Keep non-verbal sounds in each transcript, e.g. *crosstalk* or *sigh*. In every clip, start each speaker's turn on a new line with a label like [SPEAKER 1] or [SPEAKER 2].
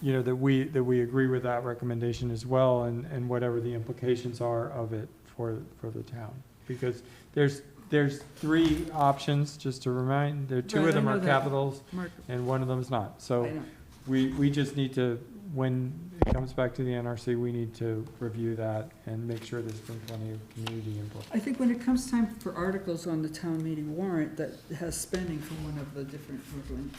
[SPEAKER 1] you know, that we, that we agree with that recommendation as well and, and whatever the implications are of it for, for the town. Because there's, there's three options, just to remind, there, two
[SPEAKER 2] Right, I
[SPEAKER 1] of them
[SPEAKER 2] know
[SPEAKER 1] are
[SPEAKER 2] that.
[SPEAKER 1] capitals
[SPEAKER 2] Mark,
[SPEAKER 1] and one of them is not.
[SPEAKER 2] I
[SPEAKER 1] So
[SPEAKER 2] know.
[SPEAKER 1] we, we just need to, when it comes back to the NRC, we need to review that and make sure there's been plenty of community input.
[SPEAKER 2] I think when it comes time for articles on the town meeting warrant that has spending for one of the different different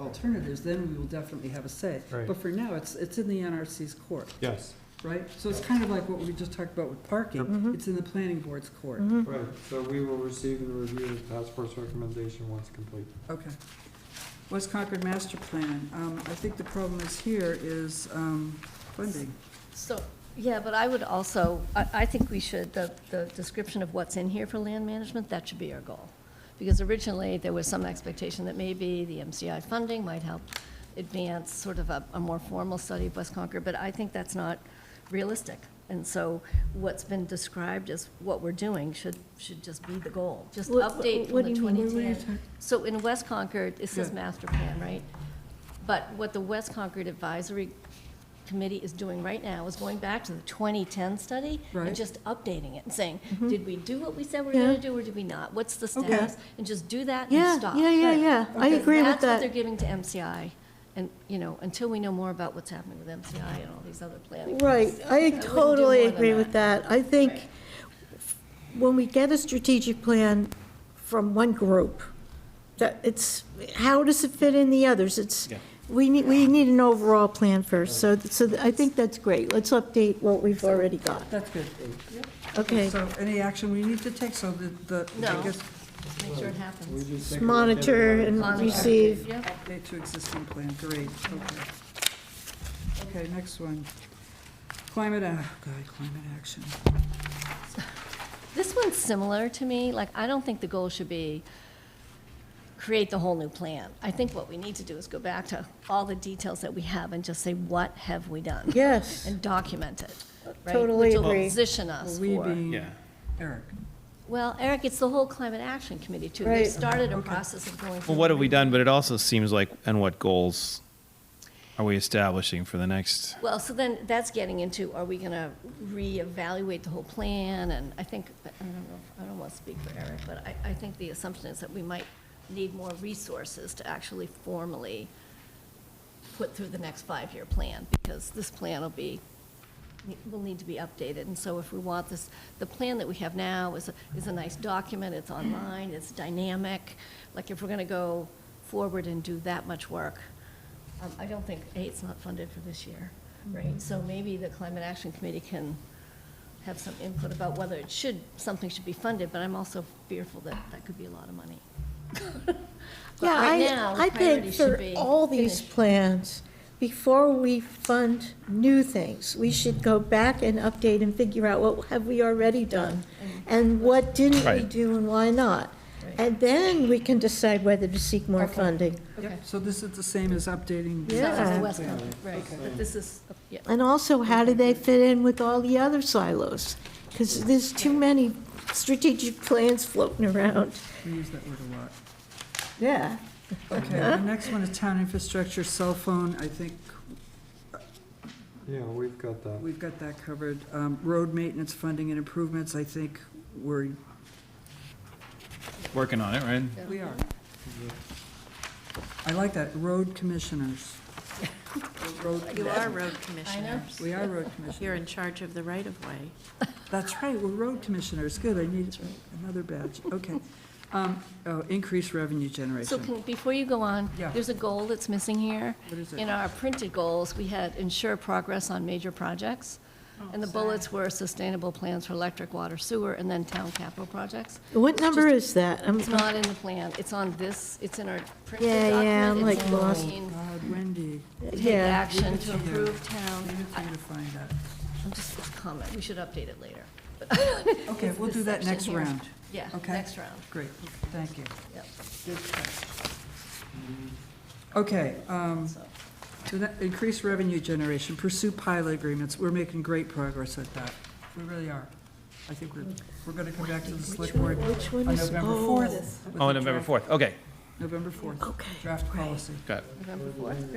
[SPEAKER 2] alternatives, then we will definitely have a say.
[SPEAKER 1] Right.
[SPEAKER 2] But for now, it's, it's in the NRC's court,
[SPEAKER 1] Yes.
[SPEAKER 2] right? So it's kind of like what we just talked about with parking,
[SPEAKER 3] Mhm.
[SPEAKER 2] it's in the planning board's court.
[SPEAKER 1] Right, so we will receive and review the task force recommendation once complete.
[SPEAKER 2] Okay. West Concord Master Plan, um, I think the problem is here is, um, funding.
[SPEAKER 4] So, yeah, but I would also, I, I think we should, the, the description of what's in here for land management, that should be our goal. Because originally, there was some expectation that maybe the MCI funding might help advance sort of a, a more formal study of West Concord, but I think that's not realistic. And so what's been described as what we're doing should, should just be the goal, just
[SPEAKER 3] What-
[SPEAKER 4] update from
[SPEAKER 3] what
[SPEAKER 4] the
[SPEAKER 3] do you mean? What were you
[SPEAKER 4] 2010. So in West Concord, it says
[SPEAKER 2] Yeah.
[SPEAKER 4] master plan, right? But what the West Concord Advisory Committee is doing right now is going back to the 2010 study
[SPEAKER 2] Right.
[SPEAKER 4] and just updating it and saying, did we do what we said we were going
[SPEAKER 3] Mm-hmm. Yeah.
[SPEAKER 4] to do or did we not? What's the
[SPEAKER 2] Okay.
[SPEAKER 4] status? And just do that
[SPEAKER 3] Yeah,
[SPEAKER 4] and stop.
[SPEAKER 3] yeah, yeah,
[SPEAKER 2] Right.
[SPEAKER 3] yeah. I
[SPEAKER 2] Okay.
[SPEAKER 3] agree with
[SPEAKER 4] That's what they're
[SPEAKER 3] that.
[SPEAKER 4] giving to MCI. And, you know, until we know more about what's happening with MCI and all these other planning.
[SPEAKER 3] Right, I
[SPEAKER 4] do
[SPEAKER 3] totally
[SPEAKER 4] more than
[SPEAKER 3] agree with that. I think
[SPEAKER 4] Right.
[SPEAKER 3] when we get a strategic plan from one group, that it's, how does it fit in the others? It's, we need, we need an overall plan first, so, so I think that's great. Let's update what we've already got.
[SPEAKER 2] That's good.
[SPEAKER 3] Okay,
[SPEAKER 2] So any action we need to take, so the, the, I
[SPEAKER 4] No.
[SPEAKER 2] guess,
[SPEAKER 4] Just make sure it happens.
[SPEAKER 3] monitor and
[SPEAKER 4] Monitor.
[SPEAKER 3] receive.
[SPEAKER 4] Yeah.
[SPEAKER 2] update to existing plan, great, okay. Okay, next one. Climate, ac- oh God, climate action.
[SPEAKER 4] This one's similar to me, like, I don't think the goal should be create the whole new plan. I think what we need to do is go back to all the details that we have and just say, what have we done?
[SPEAKER 3] Yes,
[SPEAKER 4] And document it, right?
[SPEAKER 3] Totally
[SPEAKER 4] Which will
[SPEAKER 3] agree.
[SPEAKER 4] position us
[SPEAKER 2] We
[SPEAKER 4] for.
[SPEAKER 2] being
[SPEAKER 5] Yeah.
[SPEAKER 2] Eric.
[SPEAKER 4] Well, Eric, it's the whole Climate Action Committee, too. They
[SPEAKER 3] Right.
[SPEAKER 4] started a process of going through.
[SPEAKER 5] Well, what have we done? But it also seems like, and what goals are we establishing for the next?
[SPEAKER 4] Well, so then, that's getting into, are we gonna reevaluate the whole plan? And I think, I don't know, if- I don't want to speak for Eric, but I, I think the assumption is that we might need more resources to actually formally put through the next five-year plan, because this plan will be, will need to be updated. And so if we want this, the plan that we have now is, a- is a nice document, it's online, it's dynamic. Like, if we're gonna go forward and do that much work, um, I don't think, A, it's not funded for this year, right? So maybe the Climate Action Committee can have some input about whether it should, something should be funded, but I'm also fearful that that could be a lot of money. *laughs* But
[SPEAKER 3] yeah,
[SPEAKER 4] right now, the
[SPEAKER 3] I, I
[SPEAKER 4] priority
[SPEAKER 3] think
[SPEAKER 4] should
[SPEAKER 3] for
[SPEAKER 4] be
[SPEAKER 3] all these
[SPEAKER 4] finish.
[SPEAKER 3] plans, before we fund new things, we should go back and update and figure out what have we already done? And what didn't we
[SPEAKER 5] Right.
[SPEAKER 3] do and why not?
[SPEAKER 4] Right.
[SPEAKER 3] And then we can decide whether to seek more
[SPEAKER 4] Okay.
[SPEAKER 3] funding.
[SPEAKER 4] Okay.
[SPEAKER 2] Yep, so this is the same as updating. the
[SPEAKER 4] So that's the
[SPEAKER 3] Yeah.
[SPEAKER 2] plan.
[SPEAKER 4] West Coast, right, but this is, yeah.
[SPEAKER 3] And also, how do they fit in with all the other silos? Because there's too many strategic plans floating around.
[SPEAKER 2] We use that word a lot.
[SPEAKER 3] Yeah.
[SPEAKER 2] Okay, the next one is town infrastructure, cell phone, I think
[SPEAKER 1] Yeah, we've got that.
[SPEAKER 2] we've got that covered. Um, road maintenance, funding and improvements, I think we're,
[SPEAKER 5] Working on it, right?
[SPEAKER 2] we are. I like that, road commissioners. Road
[SPEAKER 6] You
[SPEAKER 2] commissioners.
[SPEAKER 6] are road commissioners.
[SPEAKER 2] We are road commissioners.
[SPEAKER 6] You're in charge of the right-of-way.
[SPEAKER 2] That's right, we're road commissioners, good, I need another badge, okay. Um, oh, increase revenue
[SPEAKER 4] So
[SPEAKER 2] generation.
[SPEAKER 4] can, before you go on,
[SPEAKER 2] Yeah.
[SPEAKER 4] there's a goal that's missing here.
[SPEAKER 2] What is it?
[SPEAKER 4] In our printed goals, we had ensure progress on major projects.
[SPEAKER 2] Oh,
[SPEAKER 4] And the bullets were sustainable plans for electric, water, sewer, and then town capital projects.
[SPEAKER 3] What number is that? I'm-
[SPEAKER 4] It's not in the plan, it's on this, it's in our printed
[SPEAKER 3] Yeah,
[SPEAKER 4] document.
[SPEAKER 3] yeah, I'm,
[SPEAKER 4] It's
[SPEAKER 3] like,
[SPEAKER 4] in
[SPEAKER 3] lost.
[SPEAKER 4] green.
[SPEAKER 2] Oh, God, Wendy,
[SPEAKER 4] Take
[SPEAKER 3] Yeah.
[SPEAKER 4] action
[SPEAKER 2] Leave it
[SPEAKER 4] to
[SPEAKER 2] to you.
[SPEAKER 4] improve
[SPEAKER 2] I
[SPEAKER 4] town.
[SPEAKER 2] needed for you to find that.
[SPEAKER 4] I'm just a comment, we should update it later.
[SPEAKER 2] Okay, we'll
[SPEAKER 4] This
[SPEAKER 2] do that
[SPEAKER 4] section
[SPEAKER 2] next
[SPEAKER 4] here.
[SPEAKER 2] round.
[SPEAKER 4] Yeah,
[SPEAKER 2] Okay.
[SPEAKER 4] next round,
[SPEAKER 2] Great, thank you.
[SPEAKER 4] yep,
[SPEAKER 2] Good catch. Okay, um,
[SPEAKER 4] so.
[SPEAKER 2] so that- increase revenue generation, pursue pilot agreements, we're making great progress at that, we really are. I think we're, we're gonna come back to the select board on
[SPEAKER 3] Which one is,
[SPEAKER 2] November
[SPEAKER 3] oh,
[SPEAKER 2] fourth.
[SPEAKER 5] Oh, November 4th. Okay,
[SPEAKER 2] November fourth,
[SPEAKER 3] okay.
[SPEAKER 2] draft policy.
[SPEAKER 5] got it.
[SPEAKER 4] November fourth.